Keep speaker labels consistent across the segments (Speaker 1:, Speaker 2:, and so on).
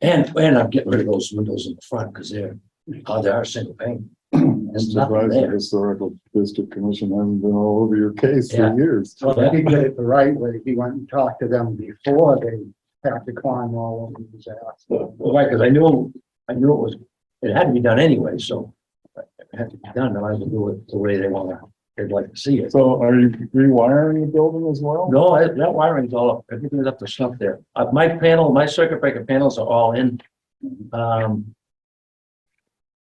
Speaker 1: And, and I'm getting rid of those windows in the front because they're, oh, they are single pane.
Speaker 2: Hmm,
Speaker 3: I'm
Speaker 1: There's nothing
Speaker 3: surprised the
Speaker 1: there.
Speaker 3: historical district commission hasn't been all over your case
Speaker 1: Yeah.
Speaker 3: for years.
Speaker 1: So
Speaker 2: Well,
Speaker 1: that-
Speaker 2: he did it the right way. He went and talked to them before they had to climb all over his ass.
Speaker 1: Right, because I knew, I knew it was, it had to be done anyway, so it had to be done, and I would do it the way they wanna, they'd like to see it.
Speaker 3: So are you rewiring the building as well?
Speaker 1: No, that that wiring's all, up. everything's up to snuff there. Uh, my panel, my circuit breaker panels are all in. Um.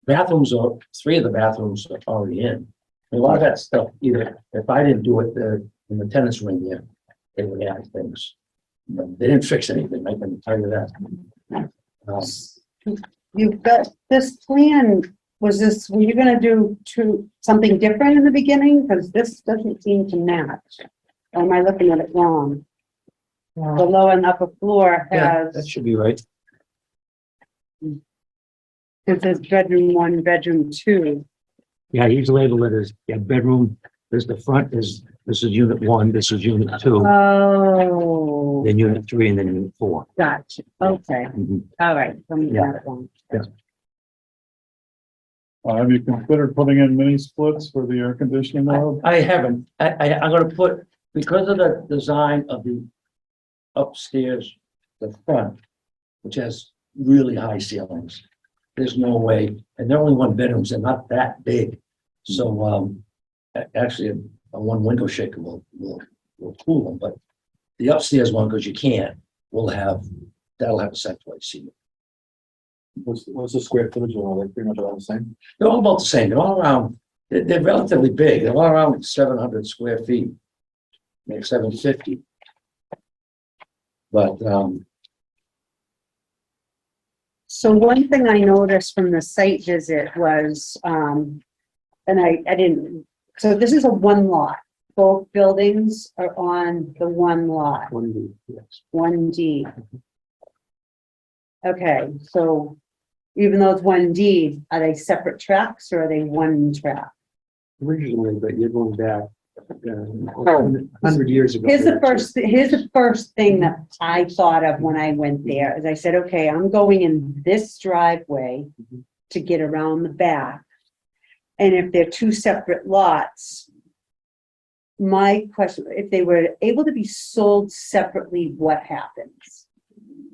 Speaker 1: Bathrooms are, three of the bathrooms are already in. A lot of that stuff, either, if I didn't do it, the, in the tenants were in there, they would add things. But They didn't fix anything, I can tell you that. Um,
Speaker 4: You've got, this plan, was this, were you gonna do two, something different in the beginning? Because this doesn't seem to match. Or am I looking at it wrong? The lower and upper floor
Speaker 1: Yeah, that
Speaker 4: has,
Speaker 1: should be right.
Speaker 4: it says bedroom one, bedroom two.
Speaker 5: Yeah, he's labeled it as, yeah, bedroom, there's the front is, this is unit one, this is unit two,
Speaker 4: Oh,
Speaker 5: then unit three, and then unit four.
Speaker 4: gotcha. Okay,
Speaker 5: Mhm.
Speaker 4: all right. I'm looking
Speaker 5: Yeah.
Speaker 4: at it wrong.
Speaker 3: Uh, Have you considered putting in mini splits for the air conditioning now?
Speaker 1: I I haven't, I, I, I'm gonna put, because of the design of the upstairs, the front, which has really high ceilings, there's no way, and they're only one bedrooms, they're not that big. So, um, a- actually, a- a one window shaker will, will, will cool them, but the upstairs one, because you can't, will have, that'll have a centralized ceiling.
Speaker 3: What's, what's the square footage of all that? Pretty much all the same?
Speaker 1: They're all about the same, they're all around, they're, they're relatively big, they're all around seven hundred square feet. Maybe seven fifty. But, um,
Speaker 4: So one thing I noticed from the site visit was, um, and I, I didn't, so this is a one lot. Both buildings are on the one lot,
Speaker 1: what do you, yes,
Speaker 4: one D. Okay, so even though it's one D, are they separate tracks or are they one track?
Speaker 6: originally, but you're going back a hundred years ago.
Speaker 4: Oh. Here's the first, here's the first thing that I thought of when I went there, is I said, okay, I'm going in this driveway to get around the back. And if they're two separate lots, my question, if they were able to be sold separately, what happens?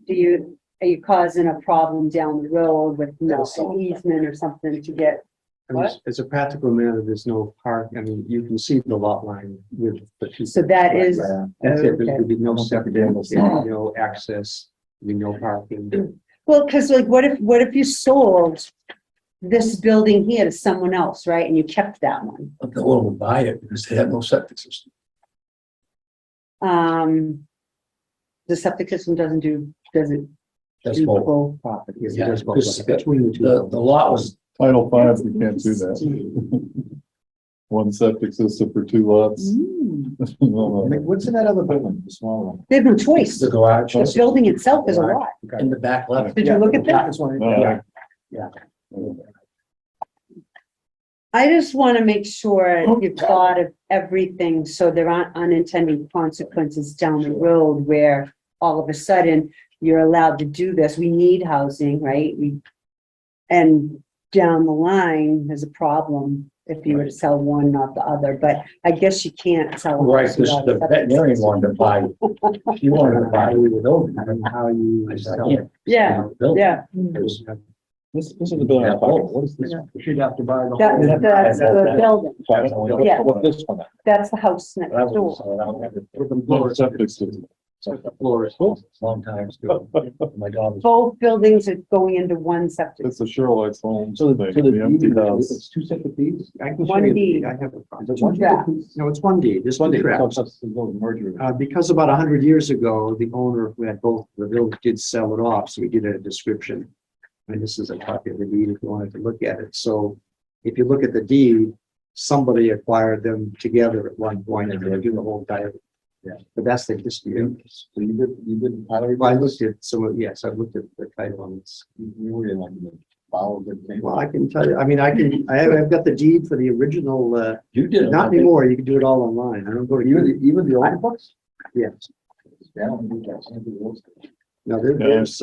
Speaker 4: Do you, are you causing a problem down the road with no an easement or something to get?
Speaker 6: I mean, As as a practical matter, there's no park, I mean, you can see the lot line with the two.
Speaker 4: So that is,
Speaker 6: That's it, there
Speaker 4: okay.
Speaker 6: would be no separate,
Speaker 3: it's not.
Speaker 6: no access, there'd be no parking.
Speaker 4: Well, because like, what if, what if you sold this building here to someone else, right, and you kept that one?
Speaker 1: but no one will buy it because they have no septic system.
Speaker 4: Um, the septic system doesn't do, does it
Speaker 1: That's
Speaker 4: do
Speaker 1: both.
Speaker 4: both?
Speaker 6: Property, if
Speaker 1: Yeah,
Speaker 6: there's both,
Speaker 1: because
Speaker 6: like, between the
Speaker 1: The, the
Speaker 6: two.
Speaker 1: lot was,
Speaker 3: Title five, you can't do that. One septic system for two lots.
Speaker 4: Mm.
Speaker 3: No, no.
Speaker 6: What's in that other building, the small one?
Speaker 4: They have no choice.
Speaker 1: the garage
Speaker 4: The
Speaker 1: was
Speaker 4: building itself is a lot.
Speaker 1: in the back left.
Speaker 4: Did you look at that?
Speaker 3: No,
Speaker 4: I just want to make sure you've thought of everything, so there aren't unintended consequences down the road where all of a sudden you're allowed to do this. We need housing, right? We, and down the line, there's a problem if you were to sell one, not the other, but I guess you can't sell. one
Speaker 1: Right, because
Speaker 4: without
Speaker 1: the
Speaker 4: septic
Speaker 1: veterinarian
Speaker 4: system.
Speaker 1: wanted to buy, she wanted to buy the building.
Speaker 6: I mean, how you.
Speaker 1: I said, I can't.
Speaker 4: Yeah, yeah.
Speaker 1: Mm.
Speaker 3: This, this is the building.
Speaker 1: Yeah.
Speaker 3: What is this?
Speaker 6: She'd have to buy the
Speaker 4: That, that's the building. Yeah.
Speaker 3: What this one?
Speaker 4: That's the house next
Speaker 1: That
Speaker 4: door.
Speaker 1: was, so that was-
Speaker 3: No septic system.
Speaker 1: long time, ago. my dog was
Speaker 4: Both buildings are going into one septic.
Speaker 3: It's a Sherlock's Holmes
Speaker 6: So
Speaker 3: thing,
Speaker 6: the, so the
Speaker 3: the empty
Speaker 6: deed, uh,
Speaker 3: house.
Speaker 6: it's two separate deeds? I can show
Speaker 4: One
Speaker 6: you the
Speaker 4: deed.
Speaker 6: I have a copy.
Speaker 4: Two tracks.
Speaker 6: No, it's one deed, there's
Speaker 3: One
Speaker 6: one
Speaker 3: day,
Speaker 6: tract.
Speaker 3: so it's just a little merger.
Speaker 6: Uh, because about a hundred years ago, the owner who had both the village did sell it off, so we did a description. And this is a copy of the deed if you wanted to look at it. So if you look at the deed, somebody acquired them together at one point and they do the whole diet. Yeah, but that's the history. of it.
Speaker 3: So you did, you did, I
Speaker 6: Well, I looked at some of, yes, I looked at the title on this.
Speaker 3: you were in like the follow good thing.
Speaker 6: Well, I can tell you, I mean, I can, I have, I've got the deed for the original, uh,
Speaker 1: You did. it.
Speaker 6: not anymore. You can do it all online. I don't go to. Even, even the old books? Yes.
Speaker 3: Yeah, I don't think that's-
Speaker 6: No, there-
Speaker 3: Yeah.
Speaker 6: there's, uh,